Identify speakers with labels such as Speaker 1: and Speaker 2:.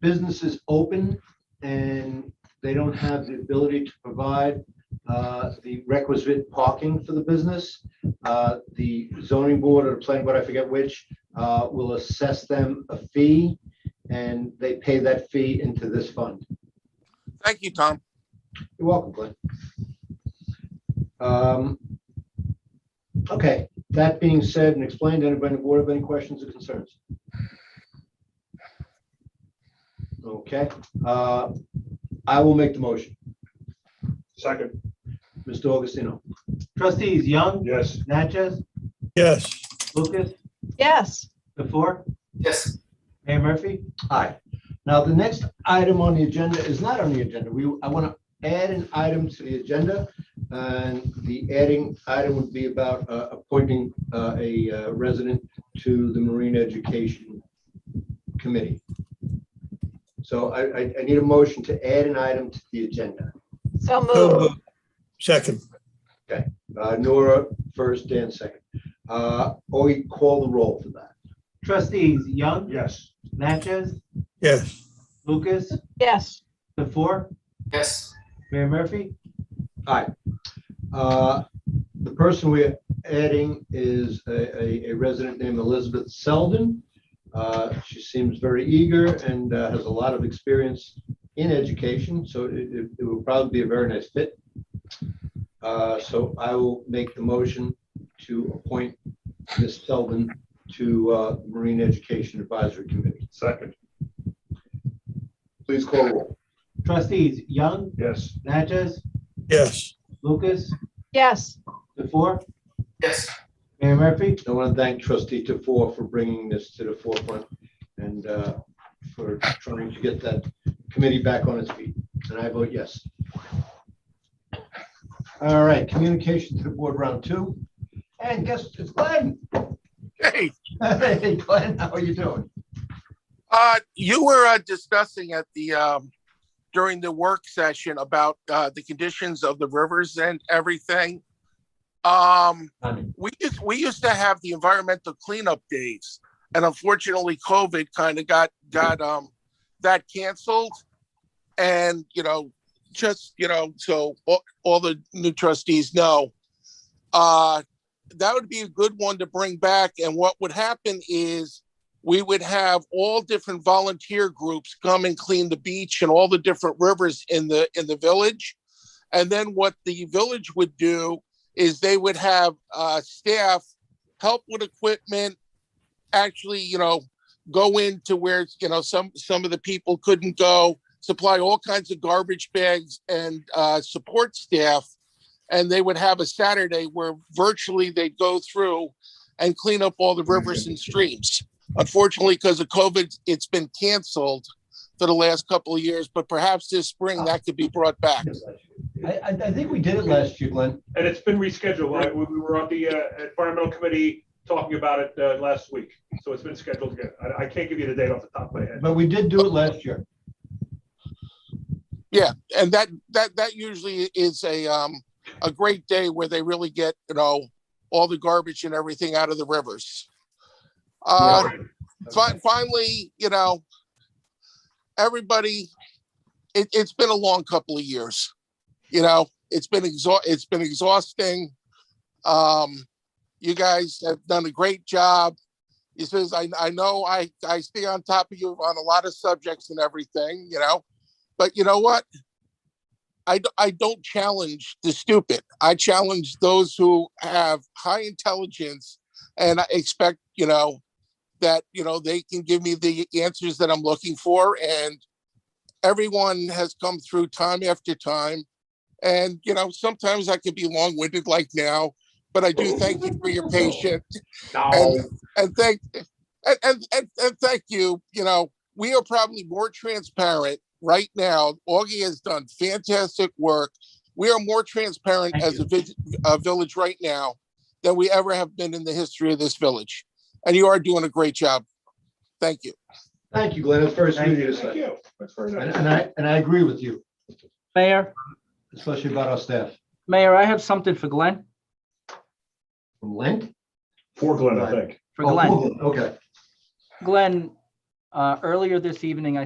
Speaker 1: businesses open and they don't have the ability to provide uh, the requisite parking for the business, uh, the zoning board or the planning board, I forget which, uh, will assess them a fee and they pay that fee into this fund.
Speaker 2: Thank you, Tom.
Speaker 1: You're welcome, Glenn. Um, Okay, that being said and explained, anybody on the board have any questions or concerns? Okay, uh, I will make the motion.
Speaker 3: Second,
Speaker 1: Mr. Augustino.
Speaker 4: Trustees Young,
Speaker 3: yes.
Speaker 4: Natchez,
Speaker 5: yes,
Speaker 4: Lucas,
Speaker 6: yes,
Speaker 4: the four,
Speaker 3: Yes.
Speaker 4: Mayor Murphy?
Speaker 1: Aye. Now, the next item on the agenda is not on the agenda. We, I want to add an item to the agenda. And the adding item would be about uh, appointing uh, a uh, resident to the Marine Education Committee. So I, I- I need a motion to add an item to the agenda.
Speaker 6: so
Speaker 5: So
Speaker 6: moved,
Speaker 5: moved. second,
Speaker 1: Uh, Nora first, Dan second. Uh, Oi, call the roll for that.
Speaker 4: Trustees Young,
Speaker 3: Yes.
Speaker 4: Natchez,
Speaker 5: yes,
Speaker 4: Lucas,
Speaker 6: yes,
Speaker 4: the four,
Speaker 3: Yes.
Speaker 4: Mayor Murphy?
Speaker 1: Aye. Uh, The person we're adding is a, a- a resident named Elizabeth Selden. Uh, She seems very eager and uh, has a lot of experience in education, so it, it- it will probably be a very nice fit. Uh, So I will make the motion to appoint Ms. Selden to uh, Marine Education Advisory Committee.
Speaker 3: Second,
Speaker 1: Please call roll.
Speaker 4: Trustees Young,
Speaker 3: yes.
Speaker 4: Natchez,
Speaker 5: yes,
Speaker 4: Lucas,
Speaker 6: yes,
Speaker 4: the four,
Speaker 3: Yes.
Speaker 4: Mayor Murphy?
Speaker 1: I want to thank trustee Tefor for bringing this to the forefront and uh, for trying to get that committee back on its feet. And I vote yes. All right, communication to the board round two. And guess, it's Glenn.
Speaker 2: Hey,
Speaker 1: Hey, Glenn, how are you doing?
Speaker 2: uh, you were uh, discussing at the, um, during the work session about, uh, the conditions of the rivers and everything. Um, we used, we used to have the environmental cleanup days and unfortunately COVID kind of got, got, um, that canceled. And, you know, just, you know, so all, all the new trustees know, uh, that would be a good one to bring back. And what would happen is we would have all different volunteer groups come and clean the beach and all the different rivers in the in the village and then what the village would do is they would have uh, staff help with equipment actually you know go into where you know some some of the people couldn't go supply all kinds of garbage bags and uh, support staff and they would have a saturday where virtually they'd go through and clean up all the rivers and streams Unfortunately, because of COVID, it's been canceled for the last couple of years, but perhaps this spring that could be brought back.
Speaker 1: I, I I think we did it last year, Glenn.
Speaker 3: And it's been rescheduled. I- We we were on the uh, environmental committee talking about it uh, last week. So it's been scheduled again. I I can't give you the date off the top of my head.
Speaker 1: But we did do it last year.
Speaker 2: And that that that usually is a um a great day where they really get, you know, all the garbage and everything out of the rivers. Uh, fi- finally, you know, everybody, it, it's been a long couple of years. You know, it's been exhaust, it's been exhausting. Um, you guys have done a great job. He says, I, I know I, I stay on top of you on a lot of subjects and everything, you know, but you know what? I, d- I don't challenge the stupid. I challenge those who have high intelligence and I expect, you know, that you know they can give me the answers that I'm looking for and everyone has come through time after time and you know sometimes I can be long-winded like now but I do thank you for your patience and, and thank and, and, and, and thank you you know we are probably more transparent right now Augie has done fantastic work we are more transparent
Speaker 4: Thank
Speaker 2: as a, vis- a village right now than we ever have been in the history of this village and you are doing a great job. Thank you.
Speaker 1: Thank you, Glenn. It's very sweet of you to
Speaker 3: Thank
Speaker 1: say.
Speaker 3: you. That's very
Speaker 1: And
Speaker 3: nice.
Speaker 1: and I, and I agree with you,
Speaker 7: Mayor,
Speaker 1: especially about our staff.
Speaker 7: Mayor, I have something for Glenn,
Speaker 1: From Lent?
Speaker 3: For
Speaker 1: Oh.
Speaker 3: Glenn, I think.
Speaker 7: for Glenn.
Speaker 1: Okay.
Speaker 7: Glenn, uh, earlier this evening, I.